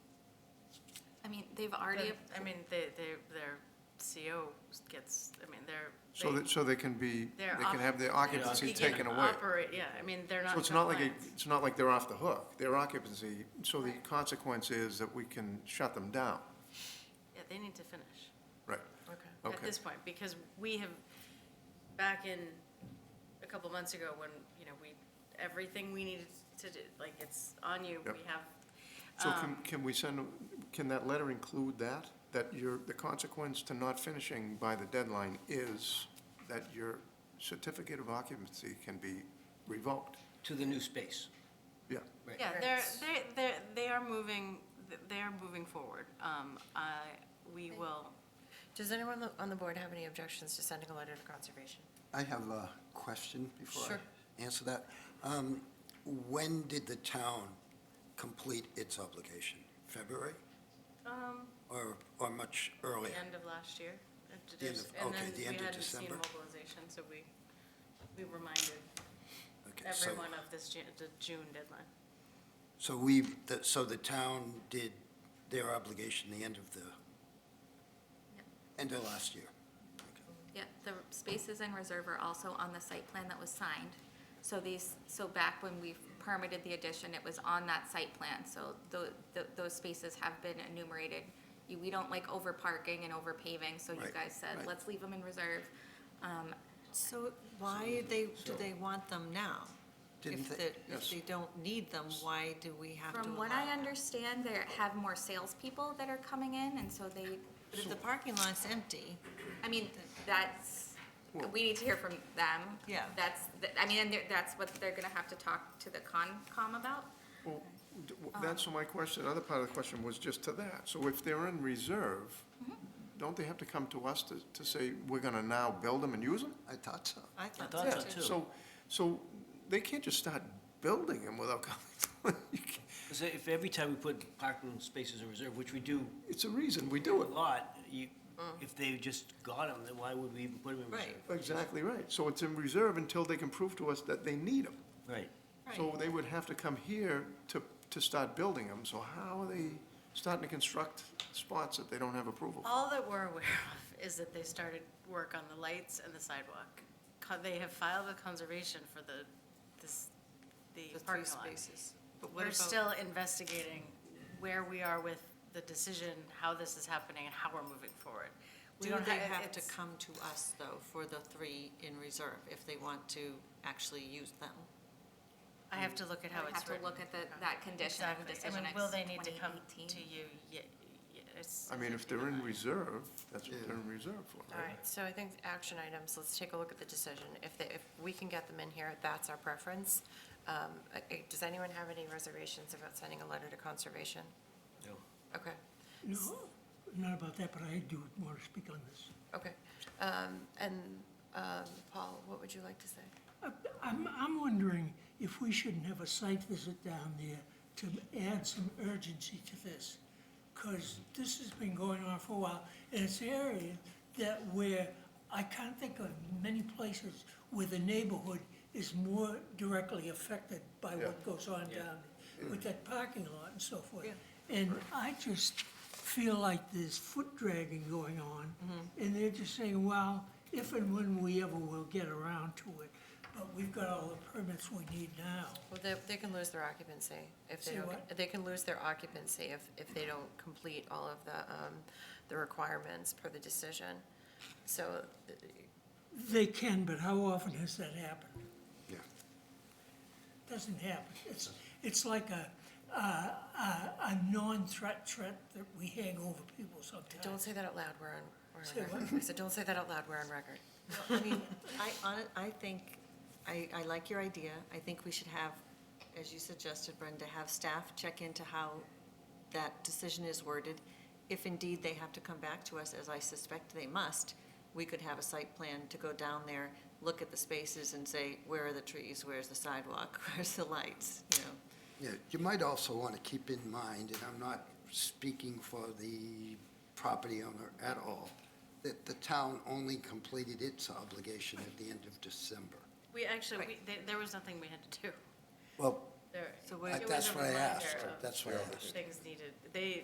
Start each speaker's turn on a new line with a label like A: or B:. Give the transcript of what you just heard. A: They've already,
B: I mean, they, they, their CO gets, I mean, they're.
C: So
B: they-
C: that, so they can be, they
B: They're
C: can
B: off-
C: have their occupancy
B: he can
C: taken away.
B: Operate, yeah, I mean, they're not.
C: So
B: in
C: it's not like, a-
B: compliance.
C: it's not like they're off the hook, their occupancy, so the consequence is that we can shut them down.
B: Yeah, they need to finish.
C: Right,
B: Okay. At
C: Okay.
B: this point, because we have, back in, a couple months ago, when, you know, we, everything we needed to do, like, it's on you, we
C: Yep.
B: have.
C: so
B: Uh,
C: can, can we send, can that letter include that? That your, the consequence to not finishing by the deadline is that your certificate of occupancy can be revoked?
D: to the new space.
C: Yeah,
D: Right.
B: Yeah, they're, they, they're, they are moving, they are moving forward. Um, I, we will,
E: Does anyone lo- on the board have any objections to sending a letter to conservation?
F: I have a question before
E: Sure.
F: I answer that. Um, When did the town complete its obligation? February
B: um,
F: or, or much earlier?
B: end of last year. uh, to
F: The end
B: dis-
F: of- okay, the end of
B: And then we
F: December.
B: hadn't seen mobilization, so we, we reminded
F: Okay, so-
B: everyone of this Ju- the June deadline.
F: So we, the- so the town did their obligation the end of the, end of last year?
A: yeah, the spaces in reserve are also on the site plan that was signed. So these, so back when we permitted the addition, it was on that site plan, so tho- tho- those spaces have been enumerated. You- We don't like over parking and over paving, so you
F: Right,
A: guys said,
F: right.
A: let's leave them in reserve. Um,
E: So why they, do they want them now?
F: Didn't
E: If
F: they-
E: the- If they don't need them, why do we have to allow?
A: From what I
E: them?
A: understand, they have more salespeople that are coming in, and so they,
E: But if the parking lot's empty,
A: I mean, that's, we need to hear from them.
E: Yeah.
A: That's, th- I mean, and they're- that's what they're gonna have to talk to the Concom about.
C: well, d- w- that's my question, other part of the question was just to that. So if they're in reserve, don't they have to come to us to, to say, we're gonna now build them and use them?
F: I thought so.
E: I thought
D: thought
E: so
D: so,
E: too.
D: too.
C: So, so they can't just start building them without coming. You can't-
D: So if every time we put parking spaces in reserve, which we do
C: It's a reason we do
D: a
C: it.
D: lot, you, if they just got them, then why would we even put them in
E: Mm. Right.
D: reserve?
C: Exactly right. So it's in reserve until they can prove to us that they need them.
D: Right.
C: So they would have to come here to, to start building them. So how are they starting to construct spots that they don't have approval?
B: All that we're aware of is that they started work on the lights and the sidewalk. Co- They have filed with conservation for the, this, the
E: The three
B: parking lot.
E: spaces. But what
B: We're
E: about-
B: still investigating where we are with the decision, how this is happening, and how we're moving forward. We
E: Do
B: don't
E: they
B: ha-
E: have to
B: it's-
E: come to us, though, for the three in reserve, if they want to actually use them?
B: I have to look at how
A: We
B: it's
A: have
B: written.
A: to look at the, that condition of the decision.
B: Exactly. I mean,
A: It's
B: will they need to come to
A: 2018.
B: you? Ye- ye- it's-
C: I mean, if they're in reserve, that's what they're in reserve for,
E: All
C: right?
E: right, so I think action items, let's take a look at the decision. If they, if we can get them in here, that's our preference. Um, uh, uh, Does anyone have any reservations about sending a letter to conservation?
D: No.
E: Okay,
G: No, not about that, but I do want to speak on this.
E: okay. Um, And um, Paul, what would you like to say?
G: Uh, I'm, I'm wondering if we shouldn't have a site visit down there to add some urgency to this. Because this has been going on for a while, and it's an area that where, I can't think of many places where the neighborhood is more directly affected by what goes on down there, with that parking lot and so forth. And I just feel like there's foot dragging going on, and they're just saying, well, if and when we ever will get around to it, but we've got all the permits we need now.
E: Well, they, they can lose their occupancy if they
G: Say
E: don't,
G: what?
E: they can lose their occupancy if, if they don't complete all of the, um, the requirements per the decision. So uh,
G: They can, but how often has that happened?
F: Yeah.
G: Doesn't happen. It's, it's like a, a, a a non-threat threat that we hang over people sometimes.
E: Don't say that out loud, we're on,
G: Say
E: we're on record. I said, don't say that out loud, we're on record.
H: I mean, I, hon- I think, I, I like your idea. I think we should have, as you suggested, Brenda, have staff check into how that decision is worded. If indeed they have to come back to us, as I suspect they must, we could have a site plan to go down there, look at the spaces and say, where are the trees, where's the sidewalk, where's the lights, you know?
F: Yeah, you might also want to keep in mind, and I'm not speaking for the property owner at all, that the town only completed its obligation at the end of December.
B: We actually, we, there, there was nothing we had to do.
F: Well,
B: There,
H: So
B: it
H: we're-
B: was a
F: that's what I
B: reminder
F: asked,
B: of
F: that's what I asked.
B: Things needed, they,